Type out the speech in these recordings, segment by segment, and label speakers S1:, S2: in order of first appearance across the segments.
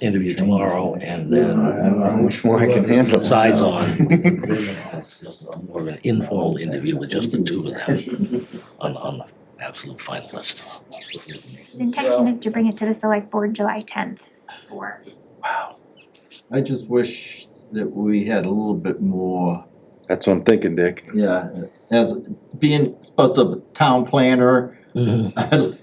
S1: interview tomorrow and
S2: I
S1: then
S2: don't know Which more I can handle.
S1: sides on. More of an informal interview with just the two of them on, on the absolute final list.
S3: His intention is to bring it to the select board July tenth for
S1: Wow.
S4: I just wish that we had a little bit more,
S2: That's what I'm thinking, Dick.
S4: yeah, as being supposed to be a town planner.
S1: Mhm.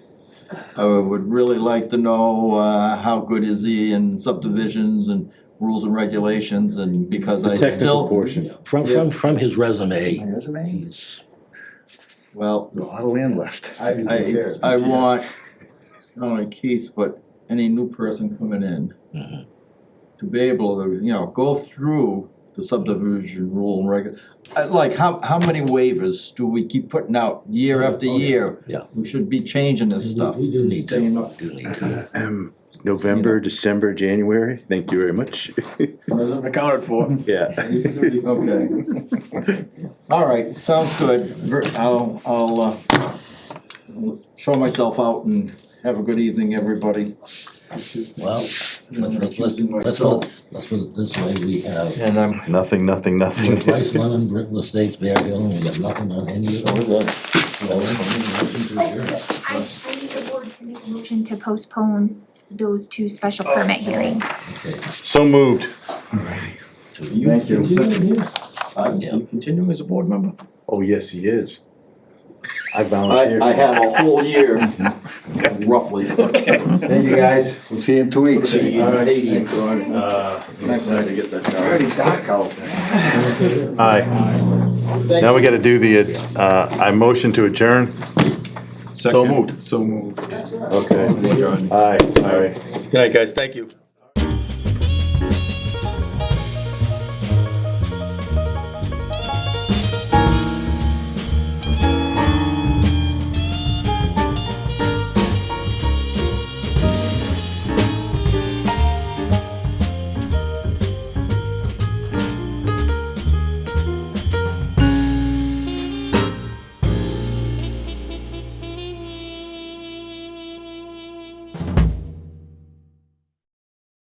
S4: I would really like to know, uh, how good is he in subdivisions and rules and regulations and because I
S2: The technical
S4: still,
S2: portion.
S1: From, from,
S4: Yes.
S1: from his resume,
S2: Resume?
S1: he's
S4: well,
S2: A lot of land left.
S4: I, I, I want, not only Keith, but any new person coming in
S1: Mhm.
S4: to be able to, you know, go through the subdivision rule and reg, I- like, how, how many waivers do we keep putting out year after
S1: Oh, yeah.
S4: year?
S1: Yeah.
S4: We should be changing this stuff.
S1: We do need to,
S4: Staying up.
S1: do need to.
S2: November, December, January, thank you very much.
S5: Wasn't accounted for.
S2: Yeah,
S4: Okay. All right, sounds good. Ver- I'll, I'll, uh, show myself out and have a good evening, everybody.
S1: Well, let's, let's, let's, let's
S5: myself.
S1: hope, let's put it this way, we have
S4: And I'm.
S2: nothing, nothing, nothing.
S1: Price Lemon, Brittle Estates, Bear Hill, and we got nothing on any of them.
S3: Oh, but I, I need the board to make a motion to postpone those two special permit hearings.
S2: So moved.
S5: Thank you.
S1: Yeah.
S5: You continuing as a board member?
S2: Oh, yes, he is. I
S4: I,
S2: volunteer.
S4: I have a whole year, roughly.
S2: Thank you, guys. We'll see you in two weeks.
S4: Eighty.
S5: Uh, I'm excited to get that
S2: Already dark out there. Aye.
S4: Thank
S2: Now we gotta do the, uh, I motion to adjourn.
S5: So moved. So moved.
S2: Okay. Aye, aye.
S5: Good night, guys, thank you.